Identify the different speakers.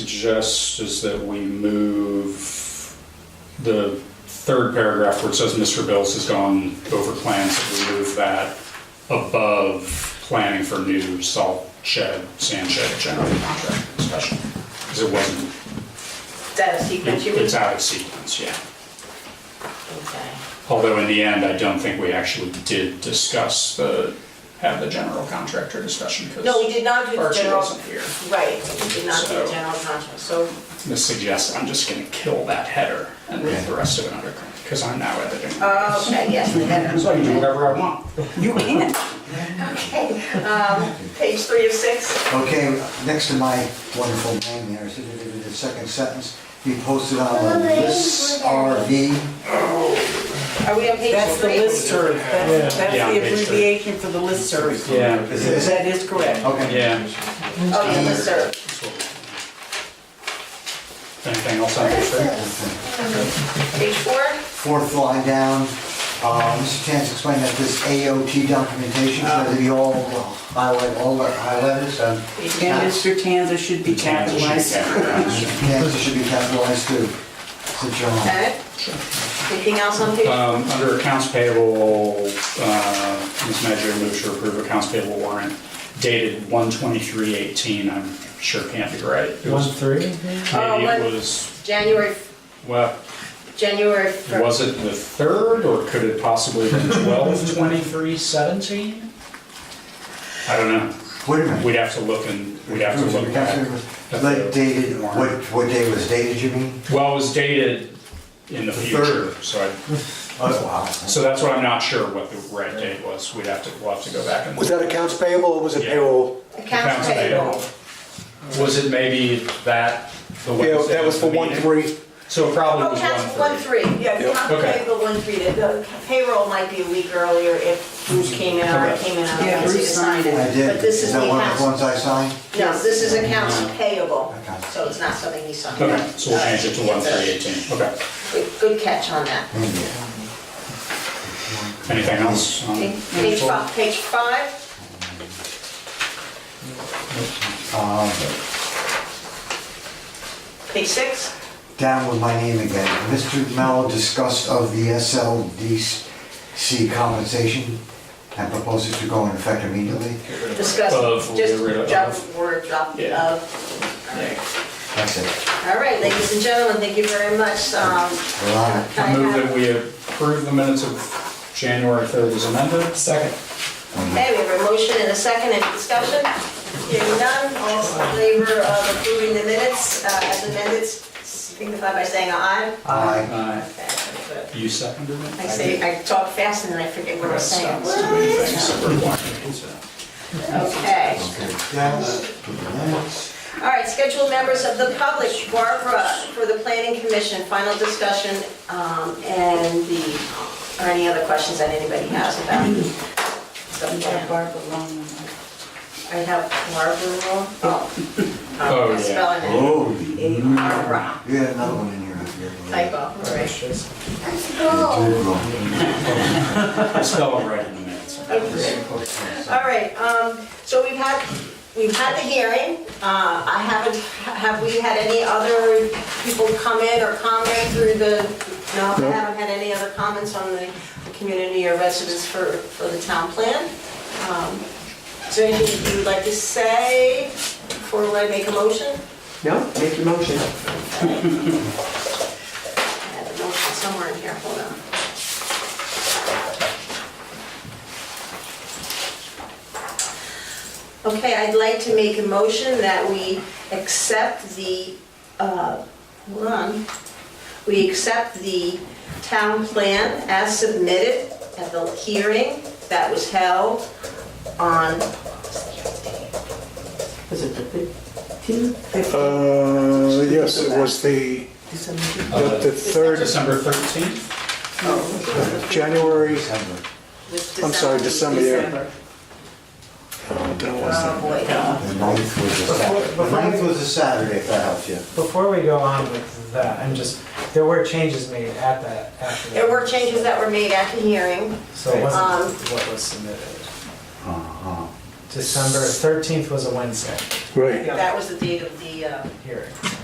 Speaker 1: suggest is that we move the third paragraph where it says Mr. Bills has gone over plans, that we move that above planning for new salt shed, sand shed, general contract discussion. Because it wasn't,
Speaker 2: That a sequence you
Speaker 1: it-
Speaker 2: mean?
Speaker 1: it's out of sequence, yeah.
Speaker 2: Okay.
Speaker 1: Although in the end, I don't think we actually did discuss the, have the general contractor discussion because
Speaker 2: No, we did not do the
Speaker 1: Archie
Speaker 2: general,
Speaker 1: wasn't here.
Speaker 2: right, we did not do the
Speaker 1: So-
Speaker 2: general contract, so,
Speaker 1: This suggests I'm just gonna kill that header and leave the rest of it under, because I'm now editing.
Speaker 2: oh, okay, yes, we had
Speaker 1: So I can do whatever I want.
Speaker 3: Uh, You can.
Speaker 2: Okay, um, page three of six,
Speaker 3: Okay, next to my wonderful name there, it says it in the second sentence, be posted on this RV.
Speaker 2: are we on page three?
Speaker 4: That's the listserv, that's, that's
Speaker 1: Yeah,
Speaker 4: the
Speaker 1: page three.
Speaker 4: abbreviation for the listserv.
Speaker 1: Yeah,
Speaker 3: Is it?
Speaker 4: That is correct.
Speaker 3: Okay.
Speaker 1: yeah.
Speaker 2: Oh, yeah, listserv.
Speaker 1: Anything else on this thing?
Speaker 2: Page four,
Speaker 3: Fourth line down, uh, Mr. Chance explained that this AOT documentation, so they all highlight, all the highlighted, so.
Speaker 4: And Mr. Tanza should be capitalized.
Speaker 3: Chance should be capitalized too, since you're on.
Speaker 2: okay. Anything else on page?
Speaker 1: Um, under accounts payable, uh, Ms. Major moves to approve accounts payable warrant dated one twenty-three eighteen, I'm sure can't be right. It
Speaker 5: One
Speaker 1: was,
Speaker 5: three?
Speaker 2: Oh,
Speaker 3: Uh,
Speaker 1: maybe
Speaker 2: one-
Speaker 1: it was,
Speaker 2: January,
Speaker 1: well,
Speaker 2: January fir-
Speaker 1: Was it the third, or could it possibly have been twelve, twenty-three, seventeen? I don't know.
Speaker 3: Wait a minute.
Speaker 1: We'd have to look and, we'd have to look back. at
Speaker 3: Like dated,
Speaker 1: the
Speaker 3: what,
Speaker 1: warrant.
Speaker 3: what day was dated, you mean?
Speaker 1: Well, it was dated in the
Speaker 3: The
Speaker 1: future,
Speaker 3: third.
Speaker 1: so I,
Speaker 3: Oh, wow.
Speaker 1: so that's why I'm not sure what the right date was. We'd have to, we'll have to go back and.
Speaker 6: Was that accounts payable or was it
Speaker 1: Yeah.
Speaker 6: payroll?
Speaker 2: accounts payable.
Speaker 1: Was it maybe that, the one?
Speaker 6: Yeah, that was for one, three.
Speaker 1: So it probably
Speaker 2: Oh,
Speaker 1: was
Speaker 2: accounts, one,
Speaker 1: one three.
Speaker 2: three, yeah,
Speaker 6: Yep.
Speaker 2: accounts
Speaker 1: Okay.
Speaker 2: payable, one, three, the- the payroll might be a week earlier if Bruce came in, or I
Speaker 1: Okay.
Speaker 2: came in, I
Speaker 4: Yeah,
Speaker 2: don't see
Speaker 4: Bruce
Speaker 2: the sign.
Speaker 4: signed it.
Speaker 3: I did.
Speaker 2: But this is the
Speaker 3: that one of
Speaker 2: accounts.
Speaker 3: the ones I signed?
Speaker 2: No, this is accounts payable,
Speaker 3: Okay.
Speaker 2: so it's not something he signed.
Speaker 1: Mm-hmm. Okay, so we'll change it to one
Speaker 2: Alright.
Speaker 1: three eighteen, okay.
Speaker 2: Good- Good catch on that.
Speaker 1: Anything else? on
Speaker 2: Okay,
Speaker 1: Mm-hmm.
Speaker 2: Page
Speaker 1: four?
Speaker 2: five, page five, page six,
Speaker 3: down with my name again. Mr. Mello discussed of the SLDC compensation and proposes to go in effect immediately.
Speaker 2: discuss,
Speaker 1: Of, we'll
Speaker 2: just
Speaker 1: get rid of.
Speaker 2: drop word, drop
Speaker 1: Yeah.
Speaker 2: of.
Speaker 3: That's it.
Speaker 2: All right, ladies and gentlemen, thank you very much. Um,
Speaker 3: We're on it.
Speaker 2: I
Speaker 1: I move that
Speaker 2: have-
Speaker 1: we approve the minutes of January 3rd as amended. Second.
Speaker 2: Okay, we have a motion and a second, any discussion? Hearing none, all in favor of approving the minutes uh, as amended, signify by saying aye.
Speaker 3: Aye.
Speaker 1: Aye.
Speaker 2: Okay, I'm good.
Speaker 1: Uh, You seconded it?
Speaker 2: I say, I talk fast and then I forget what I'm saying. Okay.
Speaker 3: Yes.
Speaker 2: All right, scheduled members of the public, Barbara for the planning commission, final discussion, um, and the, or any other questions that anybody has about the plan.
Speaker 4: Barbara Long.
Speaker 2: I have Barbara wrong. Oh,
Speaker 1: Oh,
Speaker 2: I'm
Speaker 1: yeah.
Speaker 2: spelling it.
Speaker 3: Oh,
Speaker 2: Barbara,
Speaker 3: you had another one in here. I forget.
Speaker 2: typo, all right.
Speaker 3: Two wrong.
Speaker 1: I spelled it right in the minutes.
Speaker 2: All right, um, so we've had, we've had the hearing. Uh, I haven't, have we had any other people come in or comment through the, no, I haven't had any other comments on the the community or residents for, for the town plan. Um, Is there anything you would like to say before I make a motion?
Speaker 5: No, make your motion.
Speaker 2: I had a motion somewhere in here, hold on. Okay, I'd like to make a motion that we accept the, uh, hold on. We accept the town plan as submitted at the hearing that was held on,
Speaker 4: Was it the fifteen?
Speaker 6: Uh, yes, it was the, the the third,
Speaker 1: Uh, December 13th?
Speaker 2: oh,
Speaker 6: January,
Speaker 3: December.
Speaker 2: with
Speaker 6: I'm sorry, December, yeah.
Speaker 2: Oh, boy.
Speaker 3: The ninth was a Saturday. The ninth was a Saturday, if that helps you.
Speaker 5: Before we go on with that, I'm just, there were changes made at that, after that.
Speaker 2: There were changes that were made at the hearing.
Speaker 5: So it wasn't
Speaker 2: Um,
Speaker 5: what was submitted.
Speaker 3: Uh-huh.
Speaker 2: December 13th was a Wednesday
Speaker 7: right.
Speaker 5: That was the date of the, uh,
Speaker 2: hearing.